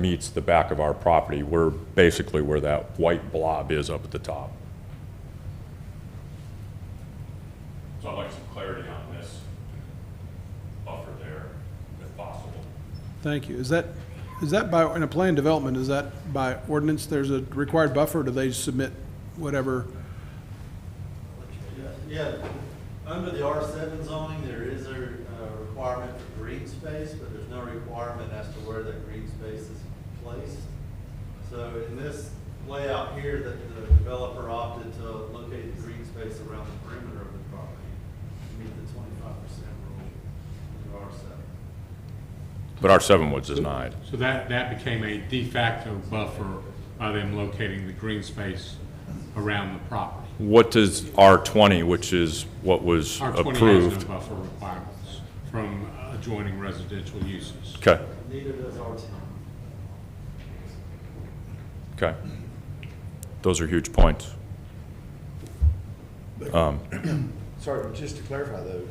meets the back of our property. We're basically where that white blob is up at the top. So I'd like some clarity on this buffer there, if possible. Thank you. Is that, is that by, in a plan development, is that by ordinance, there's a required buffer, or do they submit whatever? Yeah, under the R seven zoning, there is a uh, requirement for green space, but there's no requirement as to where that green space is placed. So in this layout here, that the developer opted to locate the green space around the perimeter of the property to meet the twenty-five percent rule in R seven. But our seven was denied. So that, that became a de facto buffer by them locating the green space around the property. What does R20, which is what was R twenty has approved? no buffer requirements from adjoining residential uses. Okay, Neither does R ten. okay. Those are huge points. Sorry, but just to clarify though,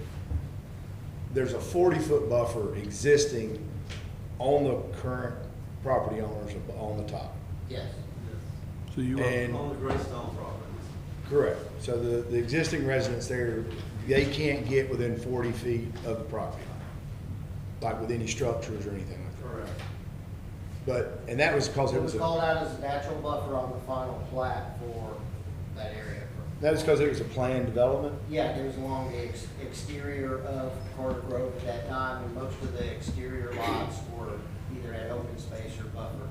there's a forty-foot buffer existing on the current property owners ab- on the top. Yes, So you are, And- On the Greystone properties. Correct. So the, the existing residents there, they can't get within forty feet of the property line, like with any structures or anything like that. Correct. But, and that was because it it was was a. called out as a natural buffer on the final plat for that area. That was because it was a planned development? Yeah, it was along the ex- exterior of Carter Grove at that time, and most of the exterior lots were either at open space or buffer.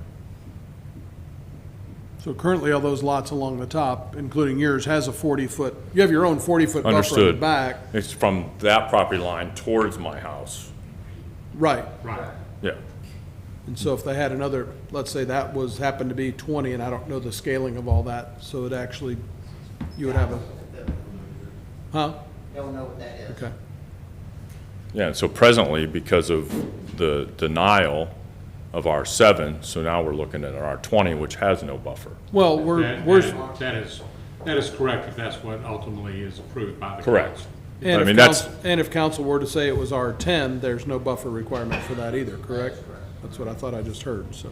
so currently all those lots along the top, including yours, has a forty-foot, you have your own forty-foot buffer in the Understood. back. It's from that property line towards my house. Right. Right. Yeah. And so if they had another, let's say that was, happened to be twenty, and I don't know the scaling of all that, so it actually, you would have a, huh? Don't know what that is. Okay. Yeah, so presently, because of the denial of R7, so now we're looking at R20, which has no buffer. Well, we're, That- we're, that- That is, that is correct if that's what ultimately is approved by the Correct. council. I and mean, if that's- council, and if council were to say it was R ten, there's no buffer requirement for that either, correct? That's what I thought I just heard, so.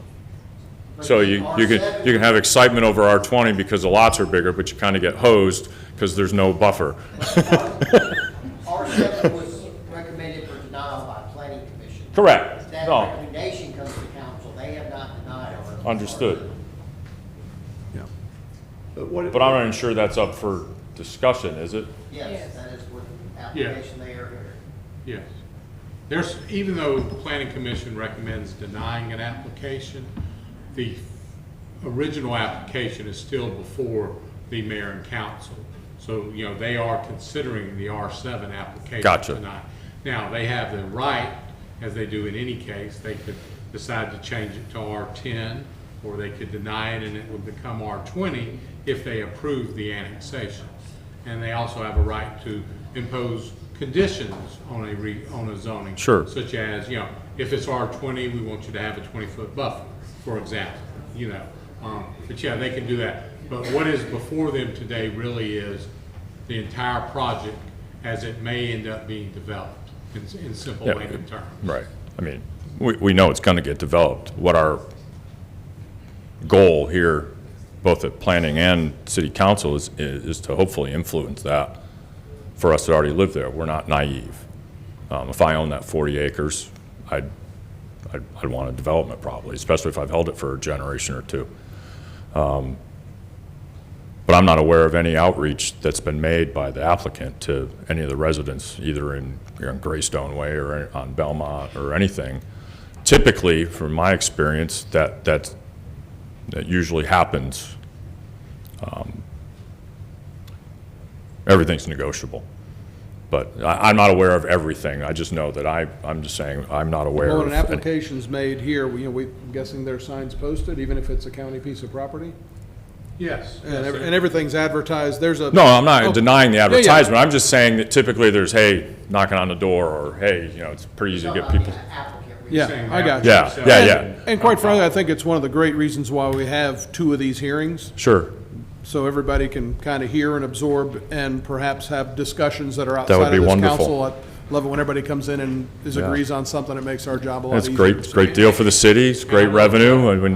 So you, you can, you can have excitement over R20 because the lots are bigger, but you kind of get hosed because there's no buffer. R seven was recommended for denial by planning commission. Correct. That No. recommendation comes to council, they have not denied it. Understood. Yeah. But what, But I'm not even sure that's up for discussion, is it? Yes, Yes. that is what application they are here. Yes. There's, even though the planning commission recommends denying an application, the original application is still before the mayor and council. So, you know, they are considering the R seven application Gotcha. tonight. Now, they have the right, as they do in any case, they could decide to change it to R ten, or they could deny it and it would become R twenty if they approve the annexation. And they also have a right to impose conditions on a re, on a zoning. Sure. Such as, you know, if it's R twenty, we want you to have a twenty-foot buffer, for example, you know. Um, But yeah, they can do that. But what is before them today really is the entire project as it may end up being developed, in, in simple Yeah. layman terms. Right. I mean, we, we know it's going to get developed. What our goal here, both at planning and city council, is, is to hopefully influence that for us that already live there. We're not naive. Um, if I owned that 40 acres, I'd, I'd, I'd want a development probably, especially if I've held it for a generation or two. Um, but I'm not aware of any outreach that's been made by the applicant to any of the residents, either in, you know, Greystone Way or on Belmont or anything. Typically, from my experience, that, that's, that usually happens. Um, Everything's negotiable. But I, I'm not aware of everything. I just know that I, I'm just saying, I'm not aware Well, of. when an any- application's made here, we, you know, we, I'm guessing there are signs posted, even if it's a county piece of property? Yes. And yes, every- sir. and everything's advertised, there's a. Oh, No, I'm not denying the Yeah, yeah. advertisement. I'm just saying that typically there's, hey, knocking on the door, or hey, you know, it's pretty easy to get Talking about people. the Applicant. we Yeah, Saying I that got for you. Yeah, yeah, yourself. yeah. And quite frankly, I think it's one of the great reasons why we have two of these hearings, Sure. so everybody can kind of hear and absorb and perhaps have discussions that are would outside be of this wonderful. council at love it when everybody comes in and is Yeah. agrees on something, it makes our job a lot That's easier. great, great deal for the city, it's great revenue, I mean,